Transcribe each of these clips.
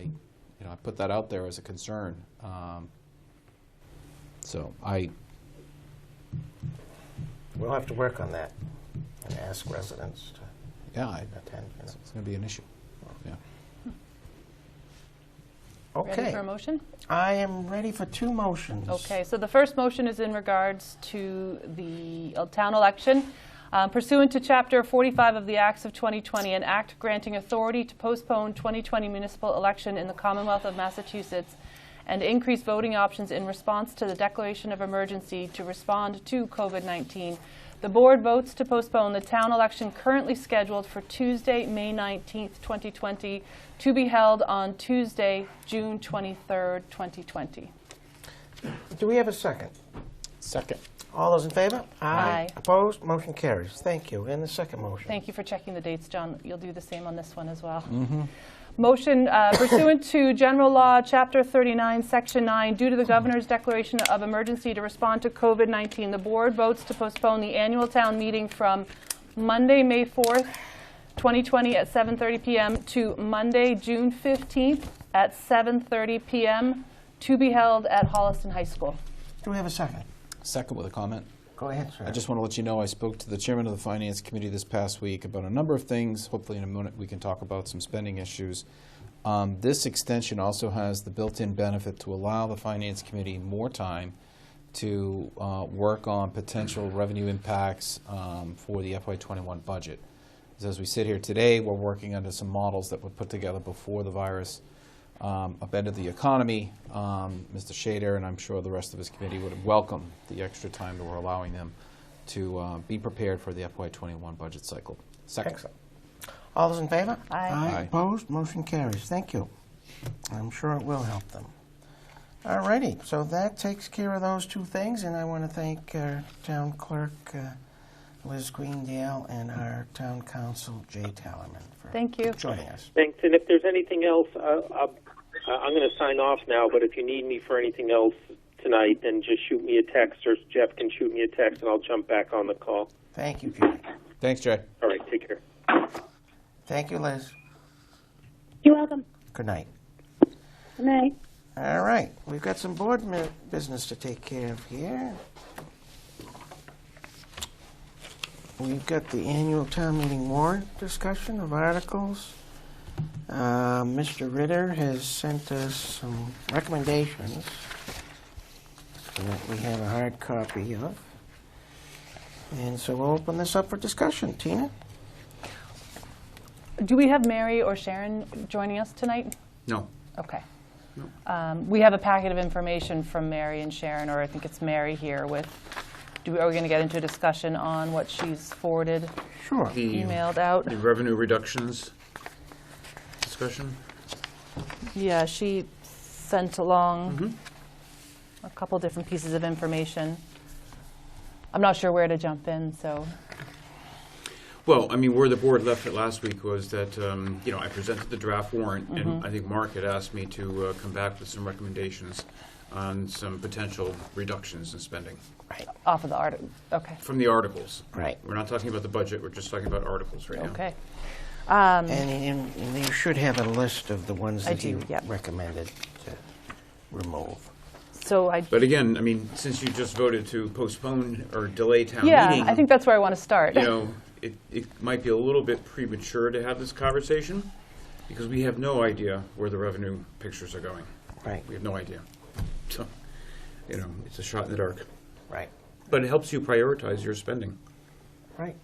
you know, I put that out there as a concern. Um, So I, We'll have to work on that and ask residents to yeah, I- attend. you know. it's going to be an issue. Yeah. Ready for a Okay, motion? I am ready for two motions. Okay, so the first motion is in regards to the uh, town election. Uh, Pursuant to Chapter 45 of the Acts of 2020, an act granting authority to postpone 2020 municipal election in the Commonwealth of Massachusetts and increase voting options in response to the declaration of emergency to respond to COVID-19. The board votes to postpone the town election currently scheduled for Tuesday, May 19th, 2020, to be held on Tuesday, June 23rd, 2020. Do we have a second? Second. All those in favor? Aye. Opposed? Motion carries. Thank you. And the second motion? Thank you for checking the dates, John. You'll do the same on this one as well. Motion uh, pursuant to General Law, Chapter 39, Section 9, due to the governor's declaration of emergency to respond to COVID-19, the board votes to postpone the annual town meeting from Monday, May 4th, 2020 at 7:30 PM to Monday, June 15th at 7:30 PM, to be held at Holliston High School. Do we have a second? Second with a comment. Go ahead, sir. I just want to let you know, I spoke to the chairman of the finance committee this past week about a number of things. Hopefully, in a minute, we can talk about some spending issues. Um, This extension also has the built-in benefit to allow the finance committee more time to uh, work on potential revenue impacts um, for the FY '21 budget. 'Cause As we sit here today, we're working under some models that were put together before the virus um, upended the economy. Um, Mr. Shader, and I'm sure the rest of his committee would welcome the extra time that we're allowing them to uh, be prepared for the FY21 budget cycle. Second. Excellent. All those in favor? Aye. Aye. Opposed? Motion carries. Thank you. I'm sure it will help them. All righty, so that takes care of those two things, and I want to thank our town clerk, uh, Liz Greendale, and our town council, Jay Tallerman, for Thank you. joining us. Thanks, and if there's anything else, uh, I'll- uh, I'm going to sign off now, but if you need me for anything else tonight, then just shoot me a text, or Jeff can shoot me a text, and I'll jump back on the call. Thank you, Judy. Thanks, Jay. All right, take care. Thank you, Liz. You're welcome. Good night. Good night. All right, we've got some board mi- business to take care of here. We've got the annual town meeting warrant discussion of articles. Uh, Mr. Ritter has sent us some recommendations that we have a hard copy of. And so we'll open this up for discussion. Tina? Do we have Mary or Sharon joining us tonight? No. Okay. Um, We have a packet of information from Mary and Sharon, or I think it's Mary here with, do, we- are we going to get into a discussion on what she's forwarded, Sure. emailed out? The revenue reductions discussion? Yeah, she sent along Mm-hmm. a couple different pieces of information. I'm not sure where to jump in, so, Well, I mean, where the board left it last week was that, um, you know, I presented the draft warrant, Mm-hmm. and I think Mark had asked me to uh, come back with some recommendations on some potential reductions in spending Right, off of the article, okay, from the articles. right. We're not talking about the budget, we're just talking about articles right now. okay. And- And and you should have a list of the ones Um, I that you do, yep. recommended to remove. So I, But again, I mean, since you just voted to postpone or delay town meeting. yeah, I think that's where I want to start. you know, it, it might be a little bit premature to have this conversation because we have no idea where the revenue pictures are going. Right, We have no idea. So, you know, it's a shot in the dark. right, But it helps you prioritize your spending. right.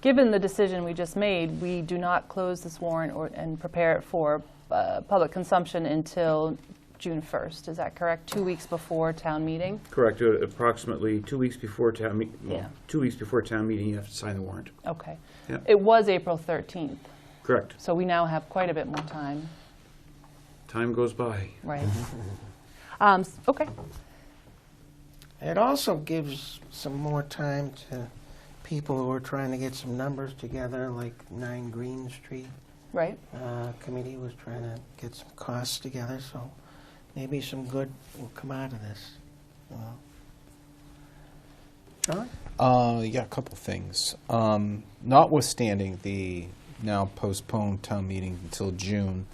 Given the decision we just made, we do not close this warrant or, and prepare it for uh, public consumption until June 1st. Is that correct? Two weeks before town meeting? Correct. uh, Approximately two weeks before town, me- Yeah. well, two weeks before town meeting, you have to sign the warrant. Okay. Yeah. It was April 13th, Correct. so we now have quite a bit more time, Time goes by. right? Um, s- Okay, It also gives some more time to people who are trying to get some numbers together, like Nine Green Street right. uh, Committee was trying to get some costs together, so maybe some good will come out of this. you know. John? Uh, yeah, a couple things. Um, notwithstanding the now postponed town meeting until June,